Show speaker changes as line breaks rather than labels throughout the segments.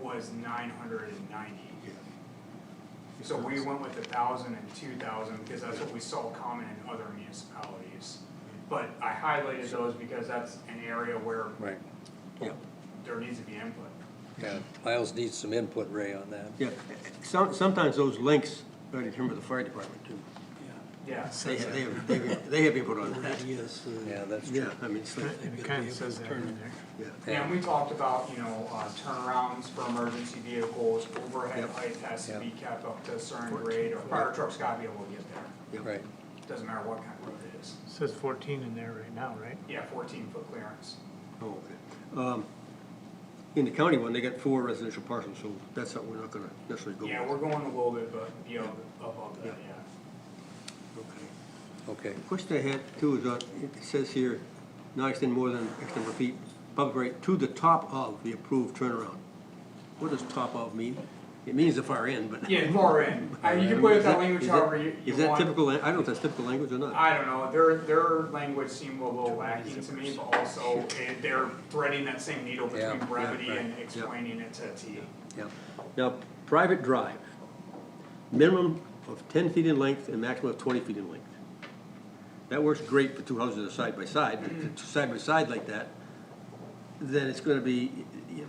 was nine hundred and ninety.
Yeah.
So we went with a thousand and two thousand, because that's what we saw common in other municipalities. But I highlighted those because that's an area where
Right,
Yep.
there needs to be input.
yeah, Miles needs some input, Ray, on that.
Yeah, some, sometimes those links are determined by the fire department too.
Yeah,
They have, they have, they have- they have input on that.
Yes.
Yeah, that's
Yeah,
true.
I mean, it's like,
And it kind of says that in there.
yeah.
and we talked about, you know, uh, turnarounds for emergency vehicles, overhead
Yep.
height has to
Yep.
be kept up to a certain grade, or fire trucks gotta be able to get there.
yeah.
Right,
Doesn't matter what kind of road it is.
Says fourteen in there right now, right?
Yeah, fourteen foot clearance.
Oh, okay. Um, In the county one, they got four residential parcels, so that's something we're not gonna necessarily go with.
Yeah, we're going a little bit, but, you know, above that, yeah.
Okay.
okay,
Question I had too is, uh, it says here, not extend more than X number of feet, public right, to the top of the approved turnaround. What does top of mean? It means the far end, but.
Yeah, far end. Uh, you can put
Is
that language
is
however you, you
Is that
want.
typical, I don't know if that's typical language or not.
I don't know, their, their language seemed a little lacking to me, but also eh, they're threading that same needle
Yeah,
between
yeah,
brevity
right,
and
yeah.
explaining it to a T.
yeah,
Now, private drive, minimum of ten feet in length and maximum of twenty feet in length. That works great for two houses that are side by side, but if it's side by side like that, then it's gonna be, you're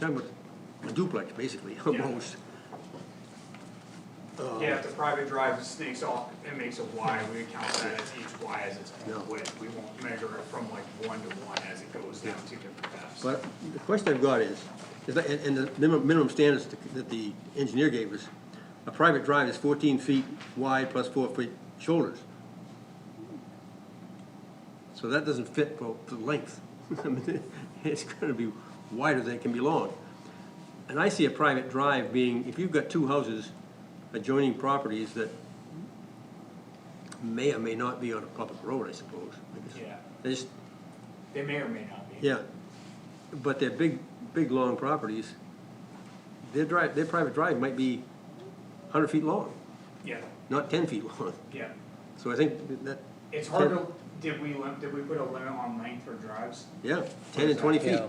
talking about a duplex, basically, almost. Oh.
Yeah, if the private drive snakes off and makes a Y, we count that as each Y as its
Yeah.
own width. We won't measure it from like one to one as it goes down two different paths.
But the question I've got is, is that, and, and the minimum, minimum standards that the engineer gave us, a private drive is fourteen feet wide plus four feet shoulders. So that doesn't fit for, for length. I mean, It's gonna be wider than it can be long. And I see a private drive being, if you've got two houses adjoining properties that may or may not be on a public road, I suppose.
Yeah.
They just,
They may or may not be.
yeah, but they're big, big, long properties. Their drive, their private drive might be hundred feet long,
Yeah,
not ten feet long.
yeah.
So I think that,
It's hard to, did we, lim- did we put a limit on length for drives?
yeah, ten and twenty feet.
yeah.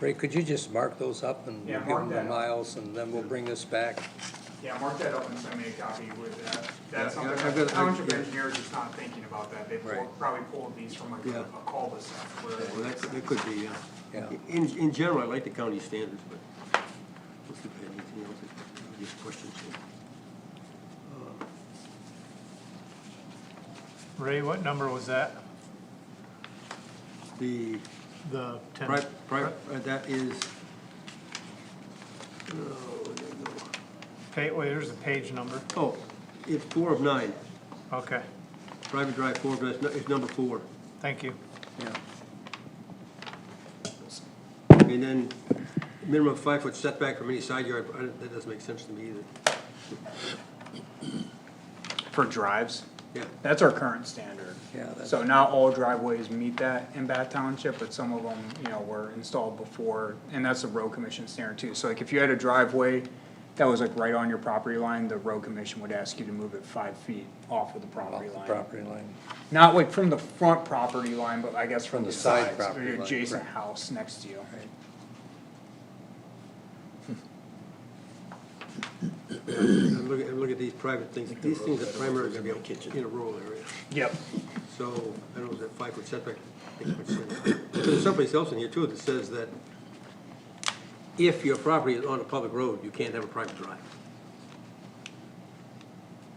Ray, could you just mark those up and
Yeah,
give
mark
them to
that up.
Miles, and then we'll bring this back?
Yeah, mark that up and send me a copy with that. That's
Yeah, I've
something, that
got-
a bunch
I've
of
got-
engineers is not thinking about that. They pull-
Right.
probably pulled these from like
Yeah.
a a cul-de-sac
Well,
where.
that, could- that could be, yeah.
Yeah.
In, in general, I like the county standards, but let's look at anything else, that- these questions.
Ray, what number was that?
The
The ten?
pri- pri- uh, that is. oh, where'd that go?
Pa- wait, there's a oh, page number.
Oh, it's four of nine,
Okay,
private drive, four of nine, it's nu- it's number four.
thank you.
Yeah.
And then minimum five foot setback from any side yard, I don't- that doesn't make sense to me either.
For drives?
Yeah,
That's our current standard.
Yeah, that's-
So not all driveways meet that in Bath Township, but some of them, you know, were installed before, and that's the road commission standard too. So like if you had a driveway that was like right on your property line, the road commission would ask you to move it five feet off of the
Off
property
the
line.
property line,
Not like from the front property line, but I guess from the
the side
sides, or
property
your
line,
adjacent
right.
house next to you.
right,
and look, and look at these private things, these things are primarily gonna be in a rural area.
Yep.
So, I don't know, is that five foot setback? makes much sense. But There's someplace else in here too that says that if your property is on a public road, you can't have a private drive,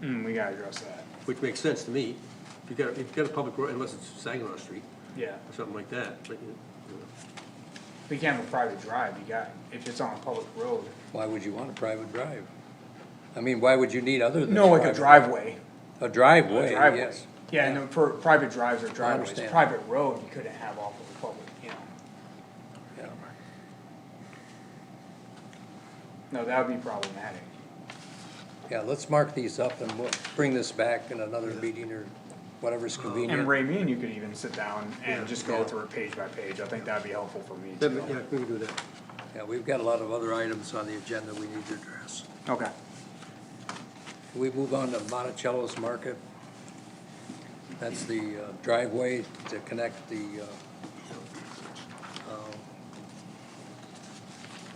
Mm, we gotta address that.
which makes sense to me. If you've got, if you've got a public road, unless it's Saginaw Street
Yeah.
or something like that, but, you know.
We can't have a private drive, you got, if it's on a public road.
why would you want a private drive? I mean, why would you need other than?
No, like a driveway.
A driveway,
driveway.
yes,
Yeah, and then for private drives or driveways,
understand.
private road, you couldn't have off of a public, you know,
yeah,
no, that would be problematic.
yeah, let's mark these up and we'll bring this back in another meeting or whatever's
And
convenient.
Ray, me and you could even sit down and just go
Yeah.
through it page by page, I think that'd be helpful for me
That ma-
too.
yeah, we can do that.
Yeah, we've got a lot of other items on the agenda we need to address.
Okay,
Can we move on to Monticello's Market? That's the uh, driveway to connect the uh,